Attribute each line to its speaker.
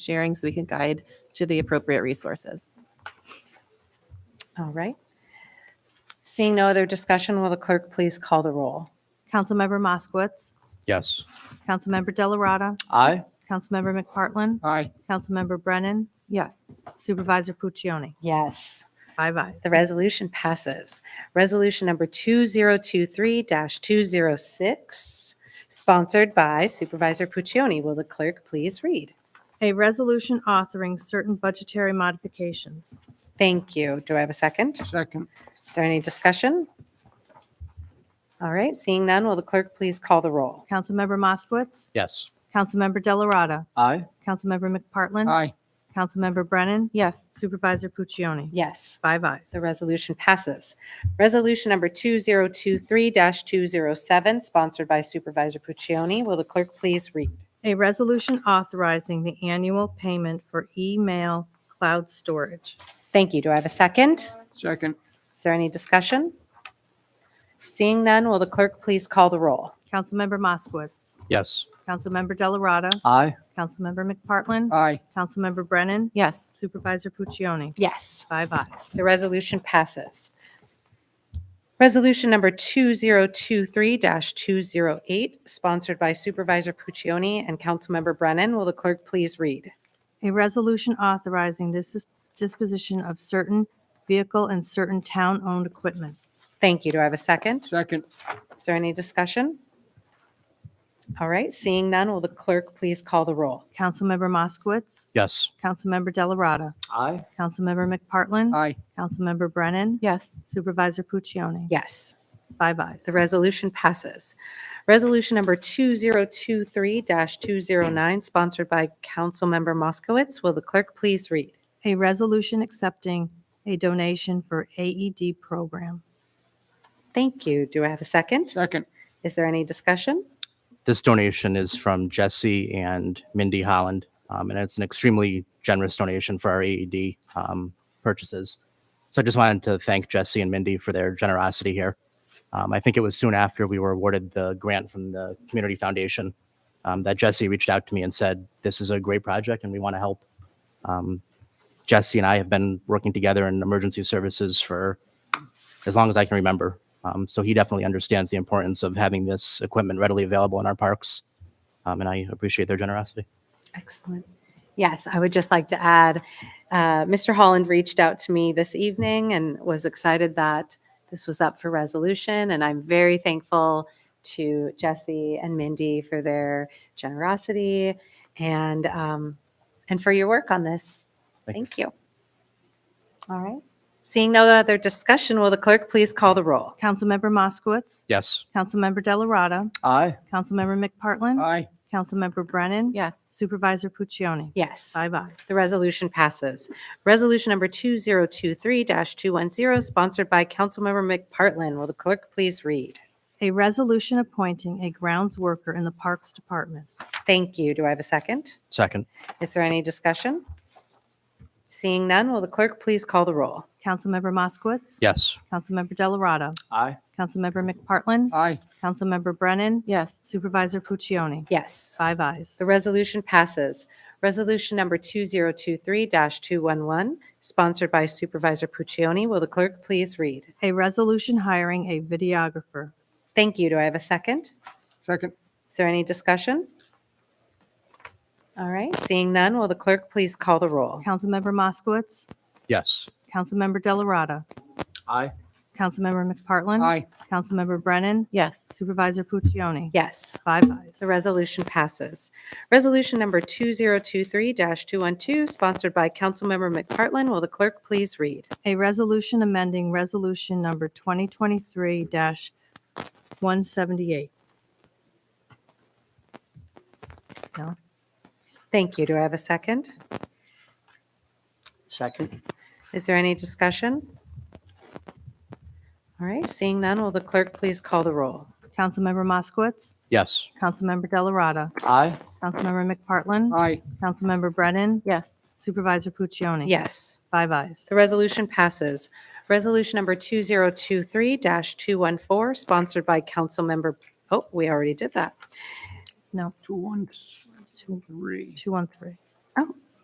Speaker 1: sharing so we can guide to the appropriate resources.
Speaker 2: All right. Seeing no other discussion, will the clerk please call the roll?
Speaker 3: Councilmember Moskowitz.
Speaker 4: Yes.
Speaker 3: Councilmember Delarada.
Speaker 4: Aye.
Speaker 3: Councilmember McPartlin.
Speaker 4: Aye.
Speaker 3: Councilmember Brennan.
Speaker 1: Yes.
Speaker 3: Supervisor Puccioni.
Speaker 2: Yes.
Speaker 3: Five ayes.
Speaker 2: The resolution passes. Resolution number 2023-206, sponsored by Supervisor Puccioni. Will the clerk please read?
Speaker 3: A resolution authoring certain budgetary modifications.
Speaker 2: Thank you. Do I have a second?
Speaker 4: Second.
Speaker 2: Is there any discussion? All right, seeing none, will the clerk please call the roll?
Speaker 3: Councilmember Moskowitz.
Speaker 4: Yes.
Speaker 3: Councilmember Delarada.
Speaker 4: Aye.
Speaker 3: Councilmember McPartlin.
Speaker 4: Aye.
Speaker 3: Councilmember Brennan.
Speaker 1: Yes.
Speaker 3: Supervisor Puccioni.
Speaker 2: Yes.
Speaker 3: Five ayes.
Speaker 2: The resolution passes. Resolution number 2023-207, sponsored by Supervisor Puccioni. Will the clerk please read?
Speaker 3: A resolution authorizing the annual payment for email cloud storage.
Speaker 2: Thank you. Do I have a second?
Speaker 4: Second.
Speaker 2: Is there any discussion? Seeing none, will the clerk please call the roll?
Speaker 3: Councilmember Moskowitz.
Speaker 4: Yes.
Speaker 3: Councilmember Delarada.
Speaker 4: Aye.
Speaker 3: Councilmember McPartlin.
Speaker 4: Aye.
Speaker 3: Councilmember Brennan.
Speaker 1: Yes.
Speaker 3: Supervisor Puccioni.
Speaker 2: Yes.
Speaker 3: Five ayes.
Speaker 2: The resolution passes. Resolution number 2023-208, sponsored by Supervisor Puccioni and Councilmember Brennan. Will the clerk please read?
Speaker 3: A resolution authorizing this dis- disposition of certain vehicle and certain town-owned equipment.
Speaker 2: Thank you. Do I have a second?
Speaker 4: Second.
Speaker 2: Is there any discussion? All right, seeing none, will the clerk please call the roll?
Speaker 3: Councilmember Moskowitz.
Speaker 4: Yes.
Speaker 3: Councilmember Delarada.
Speaker 4: Aye.
Speaker 3: Councilmember McPartlin.
Speaker 4: Aye.
Speaker 3: Councilmember Brennan.
Speaker 1: Yes.
Speaker 3: Supervisor Puccioni.
Speaker 2: Yes,
Speaker 3: Five ayes.
Speaker 2: the resolution passes. Resolution number 2023-209, sponsored by Councilmember Moskowitz. Will the clerk please read?
Speaker 3: A resolution accepting a donation for AED program.
Speaker 2: Thank you. Do I have a second?
Speaker 4: Second.
Speaker 2: Is there any discussion?
Speaker 5: this donation is from Jesse and Mindy Holland, um, and it's an extremely generous donation for our AED um, purchases. So I just wanted to thank Jesse and Mindy for their generosity here. Um, I think it was soon after we were awarded the grant from the Community Foundation um, that Jesse reached out to me and said, "This is a great project, and we want to help." Um, Jesse and I have been working together in emergency services for as long as I can remember. Um, so he definitely understands the importance of having this equipment readily available in our parks. Um, and I appreciate their generosity.
Speaker 2: Excellent. Yes, I would just like to add, uh, Mr. Holland reached out to me this evening and was excited that this was up for resolution. And I'm very thankful to Jesse and Mindy for their generosity and, um, and for your work on this.
Speaker 5: Thank
Speaker 2: Thank you. All right. Seeing no other discussion, will the clerk please call the roll?
Speaker 3: Councilmember Moskowitz.
Speaker 5: Yes.
Speaker 3: Councilmember Delarada.
Speaker 4: Aye.
Speaker 3: Councilmember McPartlin.
Speaker 4: Aye.
Speaker 3: Councilmember Brennan.
Speaker 1: Yes.
Speaker 3: Supervisor Puccioni.
Speaker 2: Yes.
Speaker 3: Five ayes.
Speaker 2: The resolution passes. Resolution number 2023-210, sponsored by Councilmember McPartlin. Will the clerk please read?
Speaker 3: A resolution appointing a grounds worker in the Parks Department.
Speaker 2: Thank you. Do I have a second?
Speaker 5: Second.
Speaker 2: Is there any discussion? Seeing none, will the clerk please call the roll?
Speaker 3: Councilmember Moskowitz.
Speaker 5: Yes.
Speaker 3: Councilmember Delarada.
Speaker 4: Aye.
Speaker 3: Councilmember McPartlin.
Speaker 4: Aye.
Speaker 3: Councilmember Brennan.
Speaker 1: Yes.
Speaker 3: Supervisor Puccioni.
Speaker 2: Yes.
Speaker 3: Five ayes.
Speaker 2: The resolution passes. Resolution number 2023-211, sponsored by Supervisor Puccioni. Will the clerk please read?
Speaker 3: A resolution hiring a videographer.
Speaker 2: Thank you. Do I have a second?
Speaker 4: Second.
Speaker 2: Is there any discussion? All right, seeing none, will the clerk please call the roll?
Speaker 3: Councilmember Moskowitz.
Speaker 5: Yes.
Speaker 3: Councilmember Delarada.
Speaker 4: Aye.
Speaker 3: Councilmember McPartlin.
Speaker 4: Aye.
Speaker 3: Councilmember Brennan.
Speaker 1: Yes.
Speaker 3: Supervisor Puccioni.
Speaker 2: Yes,
Speaker 3: Five ayes.
Speaker 2: the resolution passes. Resolution number 2023-212, sponsored by Councilmember McPartlin. Will the clerk please read?
Speaker 3: A resolution amending resolution number 2023-178. No?
Speaker 2: Thank you. Do I have a second?
Speaker 4: Second.
Speaker 2: Is there any discussion? All right, seeing none, will the clerk please call the roll?
Speaker 3: Councilmember Moskowitz.
Speaker 5: Yes.
Speaker 3: Councilmember Delarada.
Speaker 4: Aye.
Speaker 3: Councilmember McPartlin.
Speaker 4: Aye.
Speaker 3: Councilmember Brennan.
Speaker 1: Yes.
Speaker 3: Supervisor Puccioni.
Speaker 2: Yes.
Speaker 3: Five ayes.
Speaker 2: The resolution passes. Resolution number 2023-214, sponsored by Councilmember, oh, we already did that.
Speaker 3: No,
Speaker 4: Two, one, three.
Speaker 3: 213.